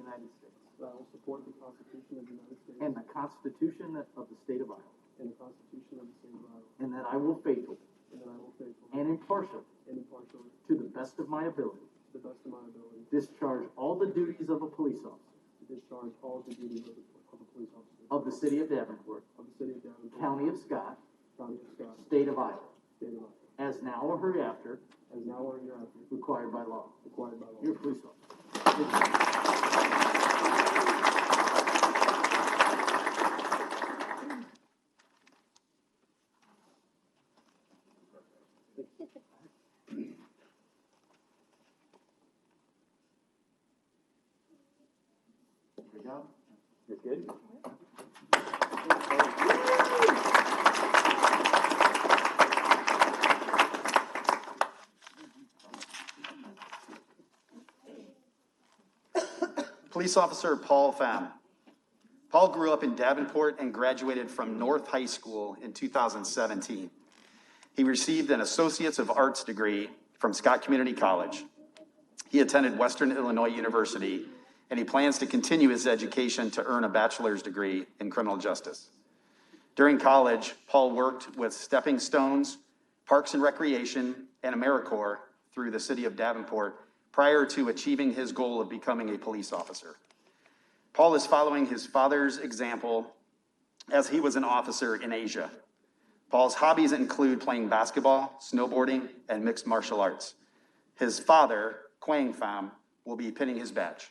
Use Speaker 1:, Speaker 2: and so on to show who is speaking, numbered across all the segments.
Speaker 1: United States
Speaker 2: that I will support the Constitution of the United States
Speaker 1: and the Constitution of the State of Iowa,
Speaker 2: and the Constitution of the State of Iowa,
Speaker 1: and that I will faithfully
Speaker 2: and that I will faithfully
Speaker 1: and impartially,
Speaker 2: and impartially,
Speaker 1: to the best of my ability,
Speaker 2: to the best of my ability,
Speaker 1: discharge all the duties of a police officer
Speaker 2: discharge all the duties of a- of a police officer
Speaker 1: of the City of Davenport,
Speaker 2: of the City of Davenport,
Speaker 1: County of Scott,
Speaker 2: County of Scott,
Speaker 1: State of Iowa,
Speaker 2: State of Iowa,
Speaker 1: as now or hereafter
Speaker 2: as now or hereafter
Speaker 1: required by law.
Speaker 2: required by law.
Speaker 1: You're a police officer. There we go. That's good?
Speaker 3: Police Officer Paul Pham. Paul grew up in Davenport and graduated from North High School in 2017. He received an Associate's of Arts degree from Scott Community College. He attended Western Illinois University, and he plans to continue his education to earn a bachelor's degree in criminal justice. During college, Paul worked with Stepping Stones, Parks and Recreation, and AmeriCorps through the city of Davenport prior to achieving his goal of becoming a police officer. Paul is following his father's example as he was an officer in Asia. Paul's hobbies include playing basketball, snowboarding, and mixed martial arts. His father, Quang Pham, will be pinning his badge.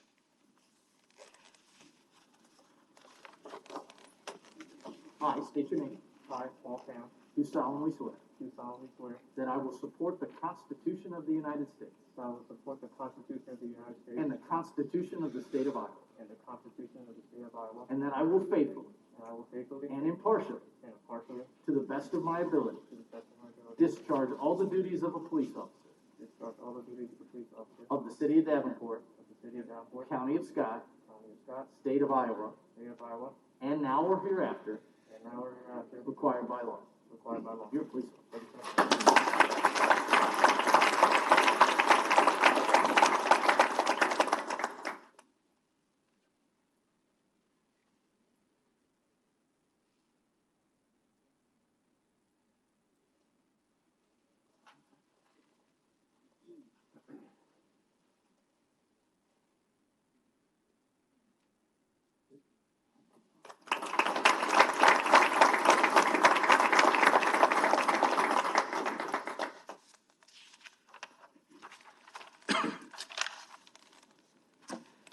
Speaker 1: I state your name.
Speaker 2: I, Paul Pham,
Speaker 1: Do solemnly swear
Speaker 2: do solemnly swear
Speaker 1: that I will support the Constitution of the United States
Speaker 2: that I will support the Constitution of the United States
Speaker 1: and the Constitution of the State of Iowa,
Speaker 2: and the Constitution of the State of Iowa,
Speaker 1: and that I will faithfully
Speaker 2: and I will faithfully
Speaker 1: and impartially,
Speaker 2: and impartially,
Speaker 1: to the best of my ability,
Speaker 2: to the best of my ability,
Speaker 1: discharge all the duties of a police officer
Speaker 2: discharge all the duties of a police officer
Speaker 1: of the City of Davenport,
Speaker 2: of the City of Davenport,
Speaker 1: County of Scott,
Speaker 2: County of Scott,
Speaker 1: State of Iowa,
Speaker 2: State of Iowa,
Speaker 1: and now or hereafter
Speaker 2: and now or hereafter
Speaker 1: required by law.
Speaker 2: required by law.
Speaker 1: You're a police officer.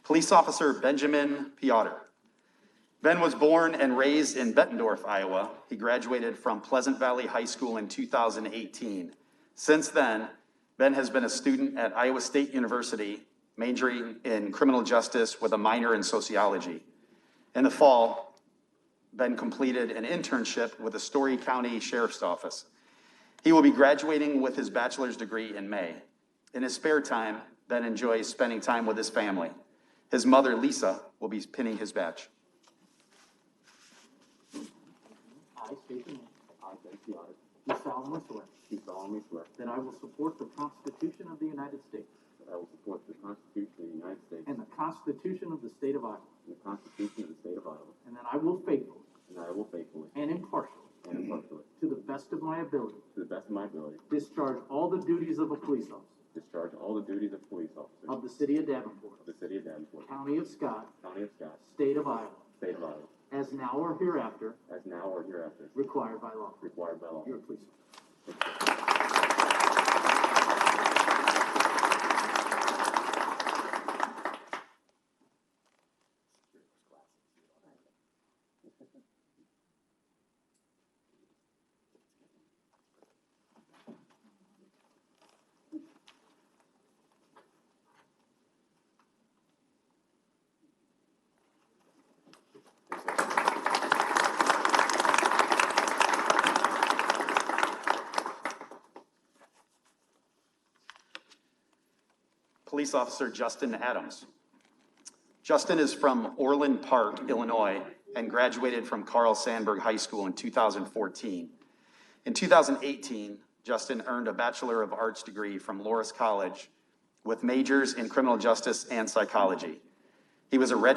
Speaker 3: Police Officer Benjamin Piotr. Ben was born and raised in Bettendorf, Iowa. He graduated from Pleasant Valley High School in 2018. Since then, Ben has been a student at Iowa State University, majoring in criminal justice with a minor in sociology. In the fall, Ben completed an internship with the Story County Sheriff's Office. He will be graduating with his bachelor's degree in May. In his spare time, Ben enjoys spending time with his family. His mother, Lisa, will be pinning his badge.
Speaker 1: I state your name.
Speaker 4: I, Ben Piotr,
Speaker 1: Do solemnly swear
Speaker 4: do solemnly swear
Speaker 1: that I will support the Constitution of the United States
Speaker 4: that I will support the Constitution of the United States
Speaker 1: and
Speaker 4: and
Speaker 1: the Constitution of the State of Iowa,
Speaker 4: the Constitution of the State of Iowa,
Speaker 1: and that I will faithfully
Speaker 4: and that I will faithfully
Speaker 1: and impartially,
Speaker 4: and impartially,
Speaker 1: to the best of my ability,
Speaker 4: to the best of my ability,
Speaker 1: discharge all the duties of a police officer
Speaker 4: discharge all the duties of police officer
Speaker 1: of
Speaker 4: of
Speaker 1: the City of Davenport,
Speaker 4: the City of Davenport,
Speaker 1: County of Scott,
Speaker 4: County of Scott,
Speaker 1: State of Iowa,
Speaker 4: State of Iowa,
Speaker 1: as now or hereafter
Speaker 4: as now or hereafter
Speaker 1: required by law.
Speaker 4: required by law.
Speaker 1: You're a police officer.
Speaker 3: Police Officer Justin Adams. Justin is from Orland Park, Illinois, and graduated from Carl Sandburg High School in 2014. In 2018, Justin earned a Bachelor of Arts degree from Loris College with majors in criminal justice and psychology. He was a registered